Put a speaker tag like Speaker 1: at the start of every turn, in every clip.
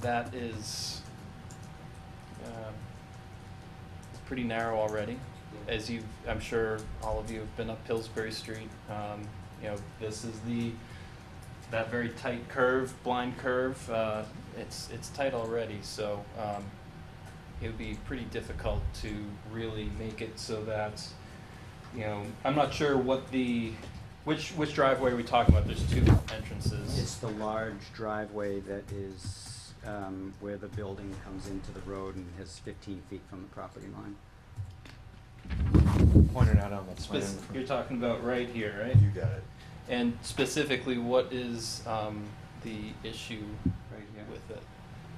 Speaker 1: that is uh, it's pretty narrow already. As you, I'm sure all of you have been up Pillsbury Street. Um, you know, this is the that very tight curve, blind curve. Uh, it's it's tight already, so um, it would be pretty difficult to really make it so that you know. I'm not sure what the which which driveway are we talking about? There's two entrances.
Speaker 2: It's the large driveway that is um, where the building comes into the road and is 15 feet from the property line.
Speaker 3: Pointed out on the plan.
Speaker 1: Spec- you're talking about right here, right?
Speaker 3: You got it.
Speaker 1: And specifically, what is um, the issue
Speaker 2: Right
Speaker 1: with it?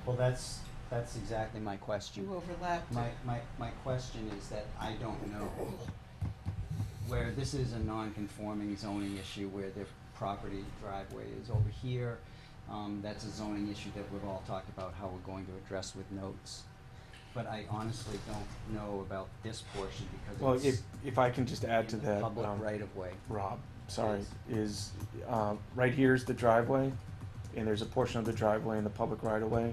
Speaker 2: Well, that's, that's exactly my question.
Speaker 4: You overlapped
Speaker 2: My,
Speaker 4: it.
Speaker 2: my, my question is that I don't know where this is a non-conforming zoning issue where the property driveway is over here. Um, that's a zoning issue that we've all talked about how we're going to address with notes. But I honestly don't know about this portion
Speaker 3: Well,
Speaker 2: because
Speaker 3: if,
Speaker 2: it's
Speaker 3: if I can just add to
Speaker 2: in the
Speaker 3: that,
Speaker 2: public
Speaker 3: um,
Speaker 2: right of way.
Speaker 3: Rob, sorry, is, um, right here is the driveway, and there's a portion of the driveway in the public right of way.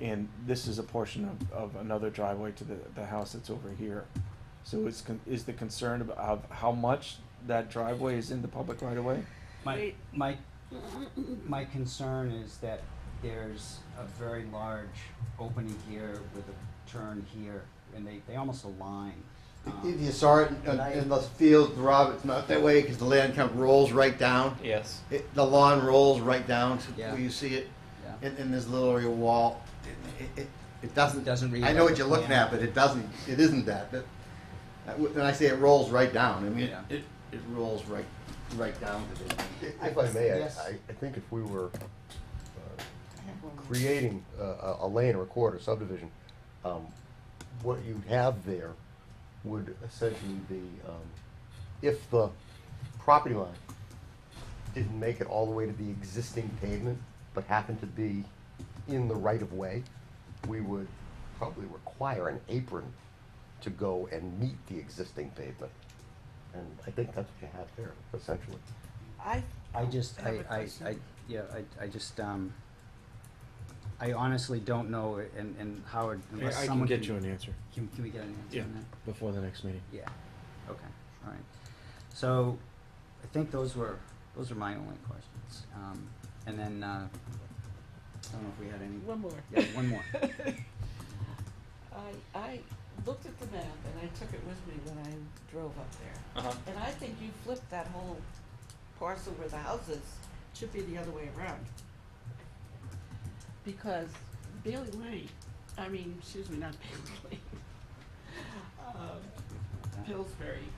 Speaker 3: And this is a portion of, of another driveway to the, the house that's over here. So is, con- is the concern of, of how much that driveway is in the public right of way?
Speaker 2: My,
Speaker 4: Wait.
Speaker 2: my, my concern is that there's a very large opening here with a turn here, and they, they almost align.
Speaker 5: If
Speaker 2: Um,
Speaker 5: you saw it in-
Speaker 2: Right.
Speaker 5: in the field, Rob, it's not that way because the land kind of rolls right down.
Speaker 1: Yes.
Speaker 5: It, the lawn rolls right down to
Speaker 2: Yeah.
Speaker 5: where you see it
Speaker 2: yeah.
Speaker 5: in, in this little area wall. It, it, it doesn't.
Speaker 2: It doesn't read
Speaker 5: I know
Speaker 2: like
Speaker 5: what
Speaker 2: a
Speaker 5: you're looking
Speaker 2: plan.
Speaker 5: at, but it doesn't. It isn't that. But uh, when I say it rolls right down, I mean
Speaker 2: Yeah.
Speaker 5: it, it rolls right right down to this.
Speaker 6: If I may, I,
Speaker 2: Yes.
Speaker 6: I I think if we were uh,
Speaker 4: I have one more.
Speaker 6: creating a- a, a lane or a quarter subdivision, um, what you'd have there would essentially be, um, if the property line didn't make it all the way to the existing pavement, but happened to be in the right of way, we would probably require an apron to go and meet the existing pavement. And I think that's what you have there, essentially.
Speaker 4: I,
Speaker 2: I just,
Speaker 4: have
Speaker 2: I,
Speaker 4: a
Speaker 2: I,
Speaker 4: question.
Speaker 2: I, yeah, I, I just, um, I honestly don't know, and, and Howard, unless someone can.
Speaker 3: answer
Speaker 2: Can, can we get an answer on that?
Speaker 3: before the next meeting.
Speaker 2: Yeah, okay, all right. So, I think those were, those are my only questions. Um, and then, uh, I don't know if we had any.
Speaker 4: One more.
Speaker 2: Yeah, one more.
Speaker 4: I, I looked at the map and I took it with me when I drove up there.
Speaker 1: Uh huh.
Speaker 4: And I think you flipped that whole parcel where the houses should be the other way around. Because Bailey Lane, I mean, excuse me, not Bailey Lane. Um,
Speaker 2: uh,
Speaker 4: Pillsbury.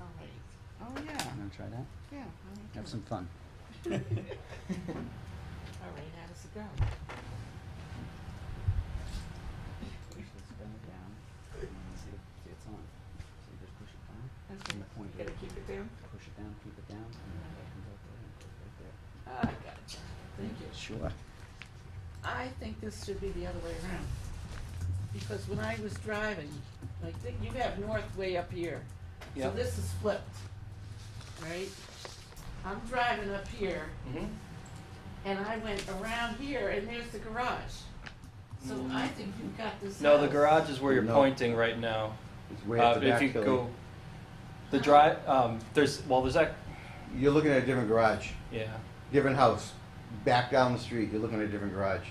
Speaker 4: All right. Oh, yeah,
Speaker 2: I'm gonna try that.
Speaker 4: yeah.
Speaker 2: Have some fun.
Speaker 4: All right, how does it go?
Speaker 2: Push this down, down, and then see if, see it's on. So you just push it down,
Speaker 4: Okay,
Speaker 2: You
Speaker 4: you gotta keep it down?
Speaker 2: push it down, keep it down, and then that
Speaker 1: Mm-hmm.
Speaker 2: comes out there and goes right there.
Speaker 4: Ah, I gotcha, thank you.
Speaker 2: Sure.
Speaker 4: I think this should be the other way around, because when I was driving, like, th- you have north way up here, so
Speaker 1: Yeah.
Speaker 4: this is flipped, right? I'm driving up here,
Speaker 1: Mm-hmm.
Speaker 4: and I went around here, and there's the garage. So I think you've got this
Speaker 1: Mm. No, the
Speaker 4: house.
Speaker 1: garage is where you're
Speaker 5: No.
Speaker 1: pointing right now.
Speaker 5: It's way at
Speaker 1: Uh,
Speaker 5: the
Speaker 1: if
Speaker 5: back.
Speaker 1: you
Speaker 5: Billy.
Speaker 1: go, the drive. Um, there's well, there's that.
Speaker 5: You're looking at a different garage,
Speaker 1: Yeah.
Speaker 5: different house. Back down the street, you're looking at a different garage.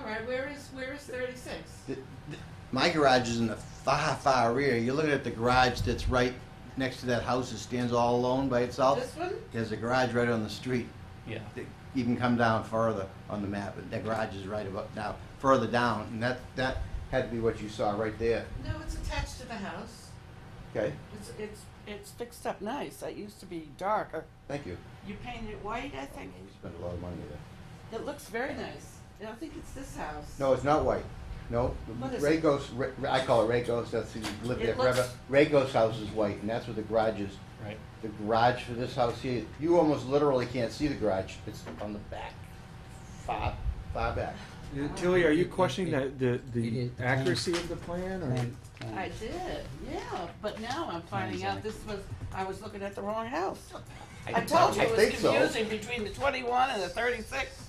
Speaker 4: All right, where is, where is thirty-six?
Speaker 5: Th- th- My garage is in the far, far rear. You're looking at the garage that's right next to that house that stands all alone by itself.
Speaker 4: This one?
Speaker 5: There's a garage right on the street.
Speaker 1: Yeah.
Speaker 5: that You can come down further on the map, and that garage is right about now, further down, and that, that had to be what you saw right there.
Speaker 4: No, it's attached to the house,
Speaker 5: Okay,
Speaker 4: it's, it's, it's fixed up nice, it used to be darker.
Speaker 5: thank you.
Speaker 4: You painted it white, I
Speaker 5: We
Speaker 4: think.
Speaker 5: spent a lot of money there.
Speaker 4: It looks very nice. And I think it's this house.
Speaker 5: No, it's not white. No,
Speaker 4: What is
Speaker 5: Ray
Speaker 4: it?
Speaker 5: Ghost, Ray- I call it Ray Ghost, that's who lived there
Speaker 4: It looks-
Speaker 5: forever. Ray Ghost's house is white, and that's where the garage is.
Speaker 1: Right.
Speaker 5: The garage for this house here, you almost literally can't see the garage. It's on the back, far, far back.
Speaker 3: Uh, Tilly, are you
Speaker 2: It- it-
Speaker 3: questioning
Speaker 2: it-
Speaker 3: the,
Speaker 2: it
Speaker 3: the,
Speaker 2: is-
Speaker 3: the accuracy of the plan, or?
Speaker 2: Plan- plan.
Speaker 4: I did, yeah. But now I'm finding out this was, I was looking at the wrong house. I told you
Speaker 5: I
Speaker 4: it was
Speaker 5: think so.
Speaker 4: confusing between the 21 and the 36.